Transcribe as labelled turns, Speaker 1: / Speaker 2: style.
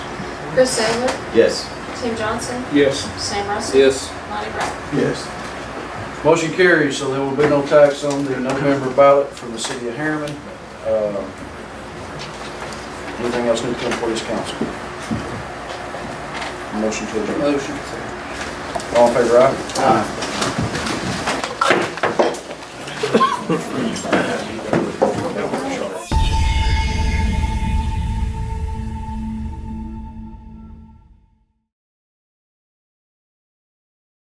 Speaker 1: Chris Taylor,
Speaker 2: Yes.
Speaker 1: Tim Johnson,
Speaker 3: Yes.
Speaker 1: Sam Russell,
Speaker 3: Yes.
Speaker 1: Lonnie Wright.
Speaker 4: Yes.
Speaker 5: Motion carries, so there will be no tax on the November ballot for the city of Harriman. Uh, Anything else need to come before this council? Motion to adjourn.
Speaker 3: Motion.
Speaker 5: All in favor, aye? Aye.